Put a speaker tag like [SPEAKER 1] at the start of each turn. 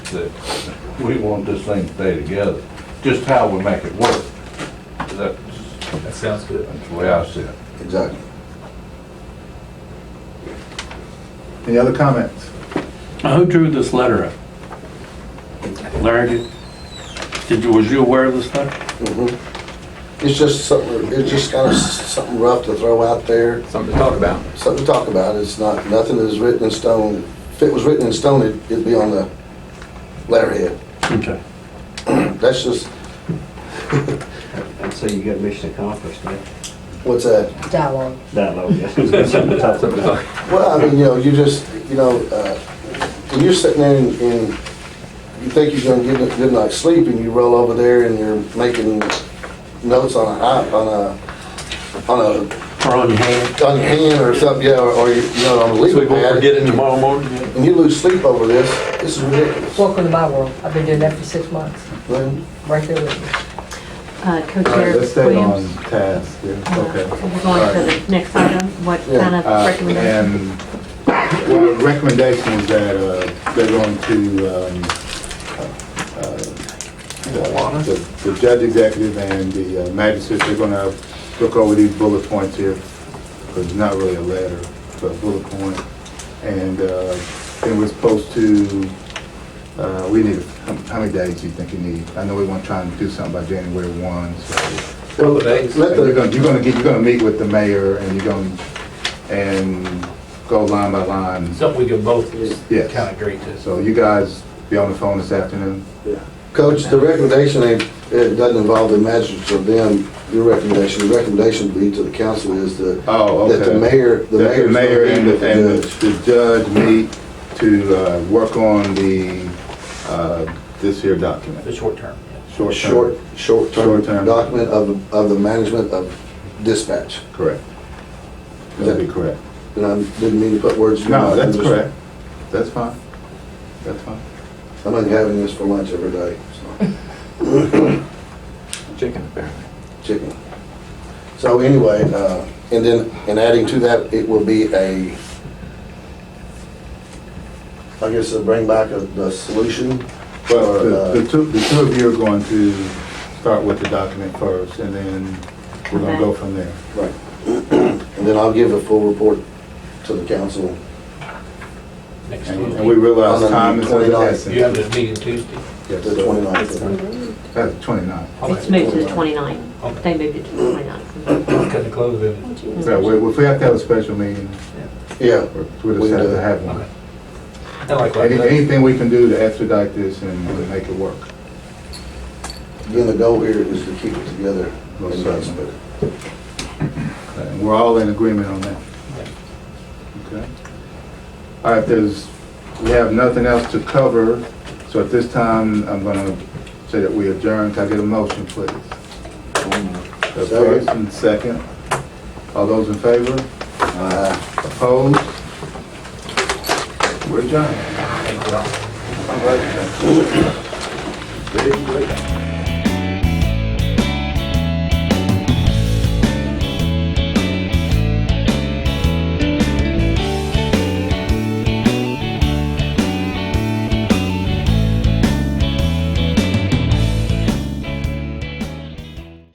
[SPEAKER 1] that we want this thing to stay together, just how we make it work. That's,
[SPEAKER 2] That sounds good.
[SPEAKER 1] that's the way I see it.
[SPEAKER 3] Exactly. Any other comments?
[SPEAKER 4] Now, Who drew this letter up? Larry did? Did you, was you aware of this letter?
[SPEAKER 3] Mm-hmm. It's just something, it's just kind of something rough to throw out there,
[SPEAKER 2] Something to talk about.
[SPEAKER 3] something to talk about. It's not, nothing is written in stone. If it was written in stone, it'd- it'd be on the letterhead.
[SPEAKER 4] Okay.
[SPEAKER 3] That's just,
[SPEAKER 5] And so you got mission accomplished, man.
[SPEAKER 3] what's that?
[SPEAKER 6] dialogue.
[SPEAKER 5] Dialogue, yes. Something to talk
[SPEAKER 2] Something to
[SPEAKER 5] about.
[SPEAKER 2] talk-
[SPEAKER 3] Well, I mean, you know, you just, you know, uh, when you're sitting there and and you think you're gonna get a good night's sleep and you roll over there and you're making notes on a, i- on a, on a,
[SPEAKER 4] Or on your hand?
[SPEAKER 3] on a pen or something, yeah, or, or you you know, on a legal
[SPEAKER 4] So
[SPEAKER 3] pad.
[SPEAKER 4] we won't forget it tomorrow morning?
[SPEAKER 3] And you lose sleep over this, this is ridiculous.
[SPEAKER 6] Welcome to my world. I've been doing that for six months,
[SPEAKER 3] Lynn?
[SPEAKER 6] right there with you.
[SPEAKER 7] Uh,
[SPEAKER 8] All right,
[SPEAKER 7] Co-Chair
[SPEAKER 8] let's stay on
[SPEAKER 7] Williams.
[SPEAKER 8] task, yeah,
[SPEAKER 7] uh,
[SPEAKER 8] okay.
[SPEAKER 7] We're going to the next item, what
[SPEAKER 3] Yeah,
[SPEAKER 7] kind of
[SPEAKER 8] Uh,
[SPEAKER 7] recommendation?
[SPEAKER 8] And, well, the recommendation is that, uh, they're going to, um, uh, uh, the- the judge executive and the uh, magistrate, they're gonna look over these bullet points here, because it's not really a letter, but a bullet point. And, uh, then we're supposed to, uh, we need, how- how many days do you think you need? I know we want to try and do something by January one, so.
[SPEAKER 2] Well, the days-
[SPEAKER 8] Let the, you're gonna, you're gonna get, you're gonna meet with the mayor and you're gonna, and go line by line.
[SPEAKER 2] Something we can both
[SPEAKER 8] Yes.
[SPEAKER 2] kind of agree to.
[SPEAKER 8] So you guys be on the phone this afternoon?
[SPEAKER 3] Coach, the recommendation ain't, it doesn't involve the magistrates or them, your recommendation, the recommendation would be to the council is that,
[SPEAKER 8] Oh, okay.
[SPEAKER 3] that the mayor, the
[SPEAKER 8] That
[SPEAKER 3] mayor's gonna meet
[SPEAKER 8] and,
[SPEAKER 3] with the
[SPEAKER 8] and
[SPEAKER 3] judge.
[SPEAKER 8] the the judge meet to, uh, work on the, uh, this here document.
[SPEAKER 2] The short term.
[SPEAKER 8] Short term.
[SPEAKER 3] short, short-term
[SPEAKER 8] Short-term.
[SPEAKER 3] document of, of the management of dispatch.
[SPEAKER 8] Correct. That'd be correct.
[SPEAKER 3] And I didn't mean to put words in your mouth.
[SPEAKER 8] No, that's
[SPEAKER 3] I'm just-
[SPEAKER 8] correct. That's fine. That's fine.
[SPEAKER 3] I'm not having this for lunch every day, so,
[SPEAKER 2] Chicken, apparently.
[SPEAKER 3] chicken. So anyway, uh, and then, and adding to that, it will be a, I guess it'll bring back a, the solution. Or,
[SPEAKER 8] Well,
[SPEAKER 3] uh,
[SPEAKER 8] the- the two, the two of you are going to start with the document first, and then we're gonna go from there.
[SPEAKER 3] Right. And then I'll give a full report to the council.
[SPEAKER 2] Next
[SPEAKER 8] And and
[SPEAKER 2] Tuesday.
[SPEAKER 8] we realize
[SPEAKER 3] On the
[SPEAKER 8] time is of
[SPEAKER 3] 29th.
[SPEAKER 8] the essence.
[SPEAKER 2] You have a meeting Tuesday?
[SPEAKER 8] Yes,
[SPEAKER 3] The
[SPEAKER 8] sir.
[SPEAKER 3] 29th.
[SPEAKER 8] That's 29.
[SPEAKER 7] It's moved to the 29th.
[SPEAKER 2] Okay.
[SPEAKER 7] They moved it to the 29th.
[SPEAKER 2] Couldn't close it.
[SPEAKER 8] So we- if we have to have a special meeting,
[SPEAKER 3] Yeah,
[SPEAKER 8] or we
[SPEAKER 3] We
[SPEAKER 8] just have
[SPEAKER 3] do.
[SPEAKER 8] to have one.
[SPEAKER 2] Okay. I like what I
[SPEAKER 8] Any-
[SPEAKER 2] did.
[SPEAKER 8] Anything we can do to expedite this and make it work.
[SPEAKER 3] again, the goal here is to keep it together.
[SPEAKER 8] Most
[SPEAKER 3] and not split
[SPEAKER 8] certainly. And we're all in agreement on that. Okay. All right, there's, we have nothing else to cover, so at this time, I'm gonna say that we adjourn. Can I get a motion, please? The first and second. All those in favor?
[SPEAKER 3] it.
[SPEAKER 8] Opposed? We're adjourned.
[SPEAKER 2] Thank you all.
[SPEAKER 8] All right.